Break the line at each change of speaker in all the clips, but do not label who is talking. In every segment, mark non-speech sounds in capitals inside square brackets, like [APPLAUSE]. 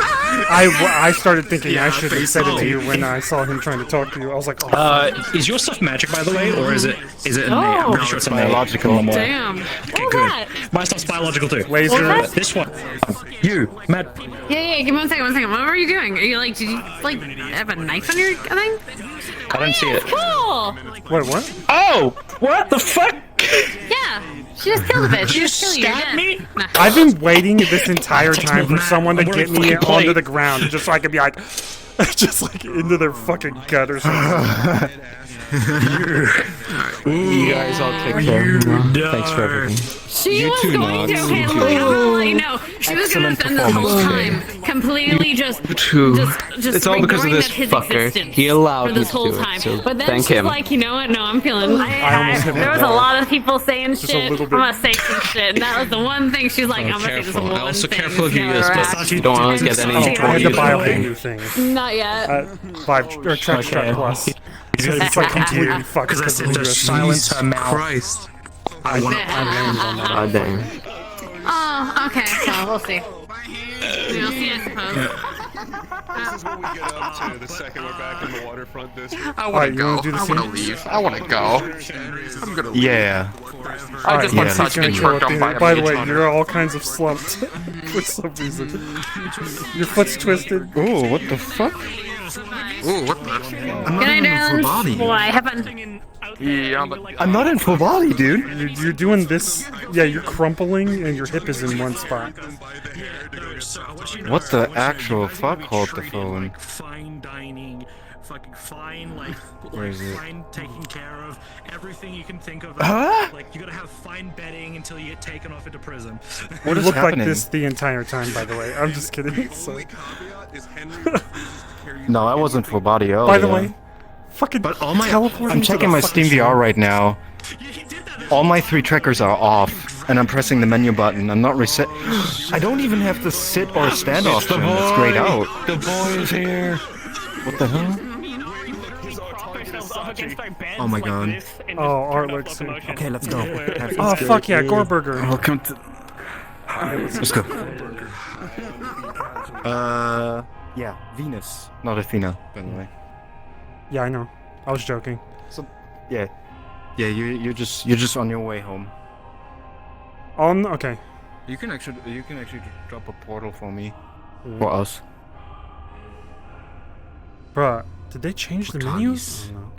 I, I started thinking I
Yeah,
should have said it to
basically.
you when I saw him trying to talk to you. I was like, oh,
Uh, is your stuff magic, by the way, or is it is it innate? I'm
No.
pretty sure it's innate.
biological.
Normal.
Damn.
Okay,
All
good.
right.
Oh.
My stuff's biological too.
"Oh, laser.
well,
Uh, this one, you, Matt.
Yeah, yeah. Give me one second. One second. What were you doing? Are you like? Did you like have a knife on your thing?
I don't see it.
Cool.
Wait, what?
Oh, what the fuck?
Yeah. She just killed a bitch. She
You
just killed
stabbed
you.
me?
Nah.
I've been waiting this entire time for
Matt,
someone to
I'm wearing
get me
fucking plate.
onto the ground, just so I could be like, [LAUGHS] just like into their fucking gut or something.
You guys all take care. Thanks for everything.
She was
two
going to.
knobs.
Okay,
You two
Lily, I'm gonna let you know. She was gonna
Excellent
spend this whole time
performance.
completely just,
two.
just, just.
It's all because of
ignoring
this
that his
fucker.
existence
He allowed
for this
me
whole
to do it,
time.
so
but then
thank
she's
him.
like, you know what? No, I'm feeling. I,
almost hit my
there was a
dog.
lot of people saying shit. I'm
little bit.
gonna say some shit. And that was the one thing she's like, I'm gonna say this
careful.
one
I
thing.
You don't want to get any
Oh, I had to
trouble.
buy all the new things.
Not yet.
Uh, buy or track
Okay.
track plus. It's like completely fucked because
Because I
of
said
the
to
USB.
silence
Jesus
her mouth.
Christ.
Christ. I want
Yeah.
God damn.
Oh, okay. So we'll see. We'll see, I suppose.
This is what we get up to the second we're back in the waterfront district.
I
Alright,
want
you
to
wanna
go.
do the
I want to
same?
leave. I want to go. I'm gonna leave.
Yeah.
All right,
just want
he's
Saj
gonna
getting
kill
worked
it,
on
dude.
by a
By the
mage
way,
hunter.
you're all kinds of slumped [LAUGHS] for some reason. Your foot's twisted.
Ooh, what the fuck?
Ooh, what the? I'm
Good
not
night,
even in full
darling.
body.
Why? Have fun.
Yeah, but
I'm not in full body, dude.
You're, you're doing this. Yeah, you're crumpling, and your hip is in one spot.
What the actual fuck? Hold the phone.
Fine dining, fucking fine, like,
Where
like
is it?
fine taken care of, everything you can think of.
Huh?
Like you gotta have fine bedding until you get taken off into prison.
What
You
is
look
happening?
like this the entire time, by the way. I'm just kidding. [LAUGHS] So,
Caveat is Henry refuses to carry you
No, I wasn't full body. Oh,
by the
yeah.
way, fucking
But all my-
teleport
I'm
into
checking
the
my
fucking
Steam VR
shop.
right now. All my three trackers are off, and I'm pressing the menu button. I'm not reset. I don't even have the sit or stand option. It's grayed out.
The boy is here.
What the hell?
Oh my god.
Oh, art looks.
Okay, let's go.
Oh fuck yeah, Gorburger.
Welcome to.
Let's go. Uh, yeah, Venus, not Athena, by the way.
Yeah, I know. I was joking.
Yeah, yeah. You you're just you're just on your way home.
On okay.
You can actually you can actually drop a portal for me. For us.
Bruh, did they change the menus? No.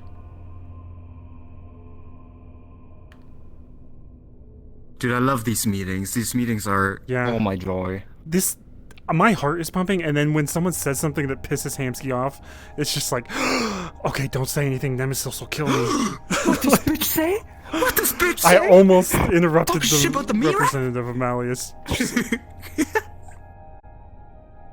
Dude, I love these meetings. These meetings are
Yeah.
all Oh my joy.
This, my heart is pumping, and then when someone says something that pisses Hamsky off, it's just like, [GASPS] okay, don't say anything. Nemesis will kill
[GASPS]
me.
bitch say? What does bitch
I almost interrupted
Talk shit about the
the
mirror?
representative of Malleus.